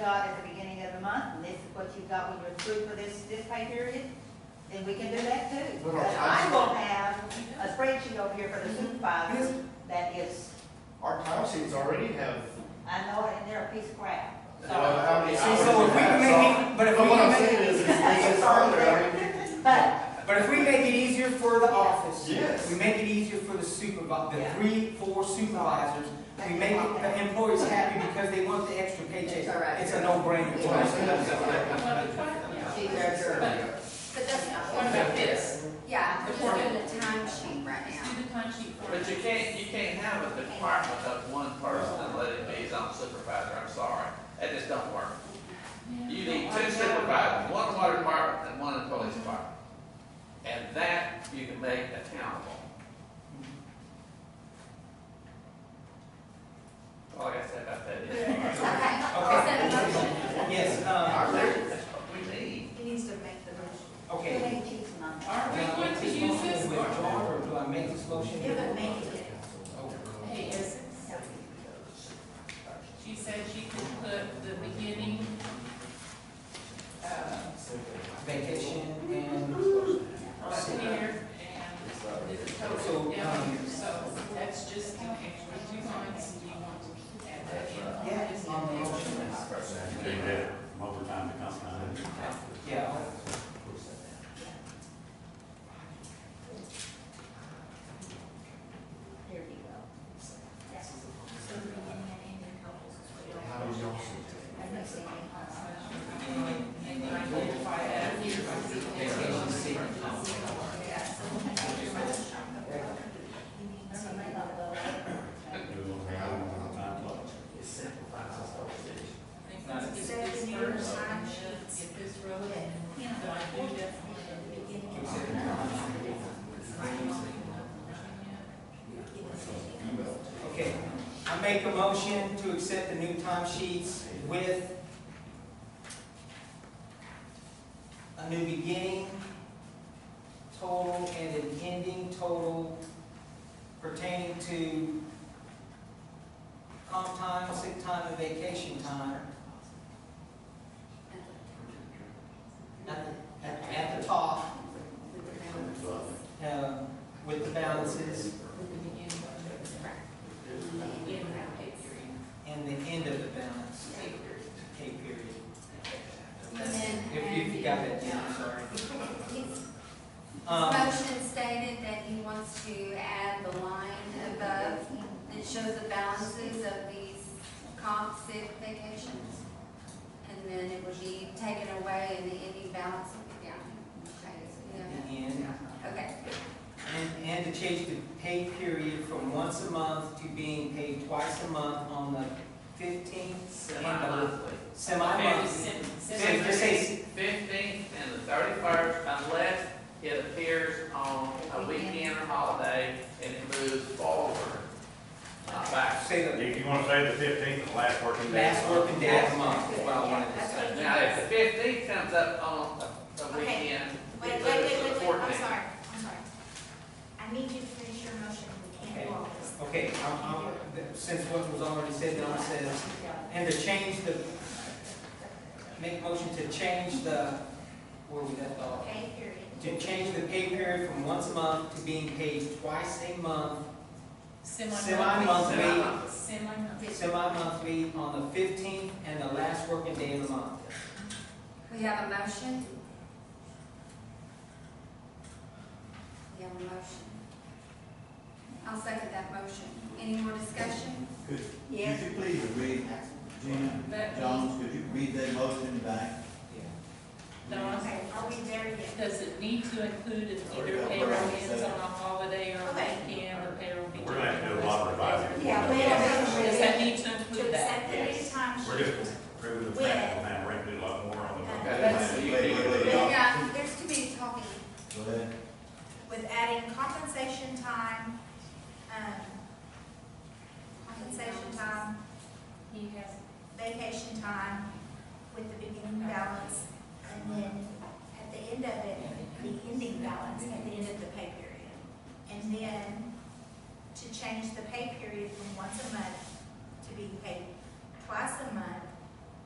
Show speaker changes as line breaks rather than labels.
got at the beginning of the month, and this is what you got when you're through for this, this pay period, then we can do that too.
Well,
Because
I-
I will have a spreadsheet over here for the supervisors that is,
Our time sheets already have.
I know it, and they're a piece of crap. So-
uh, how many
See,
hours
so if
you
we
have.
can make
So-
it- but if we
what
can
I'm
make
saying
it-
is, is this is further, I mean,
But,
But if we make it easier for the office.
Yes.
We make it easier for the supervisor, the
Yeah.
three, four supervisors. We make it- the employees happy because they want the extra paycheck.
That's all right.
It's a no-brainer.
what I'm saying is, like,
She's our attorney.
But that's not what about this.
Yeah, we're just doing the time sheet right
Let's
now.
do the time sheet for
But you
it.
can't, you can't have a department of one person and let it be his own supervisor, I'm sorry, that just don't work. You need two supervisors, one water department and one in police department. And that you can make accountable. All I gotta say about that is,
Okay, is
Okay,
that a motion?
yes, um,
our leaders, that's what we need.
he needs to make the motion.
okay.
Too many cheese and I'm-
Uh,
Are we going to use this
Do I
or?
withdraw or do I make this motion? Oh,
It would make it.
Hey, is, she said she could put the beginning, uh,
Vacation and.
up here and this is total down
um,
here, so that's just in extra two lines, do you want to add that in?
Yeah.
Just an extra.
They did from overtime to come down.
Yeah.
Here you go. That's- so we can add in the couples as well. And the same, uh,
And then identify that here by the vacation
yeah, so we can add the motion. He needs to make up the-
I think let's get this first, and then get this relevant, so I do definitely.
Okay, I make a motion to accept the new timesheets with a new beginning total and an ending total pertaining to comp time, sick time, and vacation time at the, at- at the top, um, with the balances and the end of the balance, pay period.
And then-
If you've got that, down, I'm sorry. Um,
Motion stated that he wants to add the line above that shows the balances of these comp sick vacations. And then it would be taken away and the ending balance would be down. Okay, so, yeah.
And,
Okay,
and, and to change the pay period from once a month to being paid twice a month on the fifteenth and
Semi-monthly.
the semi-month. Say- just say-
Fifteenth and the thirty-first, unless it appears on a weekend or holiday and it moves forward, not back.
Say
If you want to say the fifteenth, the last working
the
day.
last working day of the month, is what I wanted to
That's
say.
what-
Now, if the fifteenth comes up on a- a
Okay.
weekend,
Wait,
it moves to
wait, wait,
the
wait, wait, I'm
fourteenth.
sorry, I'm sorry. I need you to finish your motion, we can't do all this.
Okay, I'm, I'm, since what was already said, Donna says, and to change the, make motion to change the, where we left off.
Okay, period.
To change the pay period from once a month to being paid twice a month Semi-monthly.
Semi-monthly. Semi-monthly.
semi-monthly on the fifteenth and the last working day of the month.
we have a motion? We have a motion. I'll second that motion. Any more discussion?
Yes.
Could you please read, Gina
That-
Jones, could you read that motion back?
Dawn,
Okay, are we there yet?
does it need to include if either payroll ends on a holiday or
Okay.
weekend, or payroll begins?
We're gonna have to do a lot of revising.
Yeah, we have-
Does that need to
To
include that?
accept the new time
We're
sheet.
just approving the principle now, we're gonna do a lot more on the.
Okay, so you-
Wait, wait, wait.
you-
Yeah, there's too many talking.
Go ahead.
with adding compensation time, um, compensation time,
He has
vacation time, with the beginning balance, and then at the end of it, the ending balance at the end of the pay period. And then to change the pay period from once a month to being paid twice a month